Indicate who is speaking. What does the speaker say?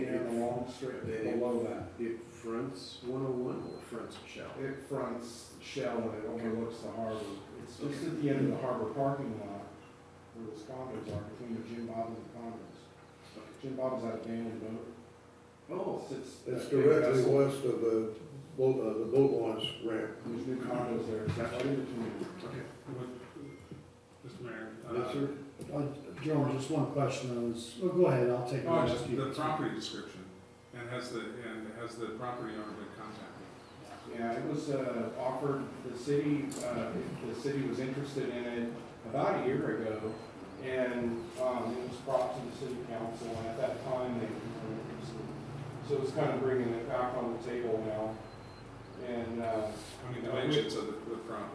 Speaker 1: strip
Speaker 2: They-
Speaker 1: below that.
Speaker 2: It fronts one oh one or fronts Shell?
Speaker 1: It fronts Shell and it overlooks the harbor. It's just at the end of the harbor parking lot where those condos are, between the Jim Bob's and the condos. Jim Bob's that abandoned boat.
Speaker 2: Oh,
Speaker 1: It's,
Speaker 3: It's
Speaker 1: that big
Speaker 3: directly
Speaker 1: vessel.
Speaker 3: west of the boat, uh, the boat launch ramp.
Speaker 1: There's new condos there. It's right in between.
Speaker 2: okay.
Speaker 4: Mr. Mayor. uh,
Speaker 3: Yes, sir.
Speaker 5: General, Uh, just one question on this. Well, go ahead, I'll take the
Speaker 4: Oh,
Speaker 5: rest.
Speaker 4: just the property description, and has the, and has the property owner been contacted?
Speaker 1: Yeah, it was uh, offered, the city, uh, the city was interested in it about a year ago, and um, it was brought to the city council, and at that time, they were interested. So it's kind of bringing it back on the table now, and uh,
Speaker 5: Uh,
Speaker 4: I mean, the dimensions of the, the property.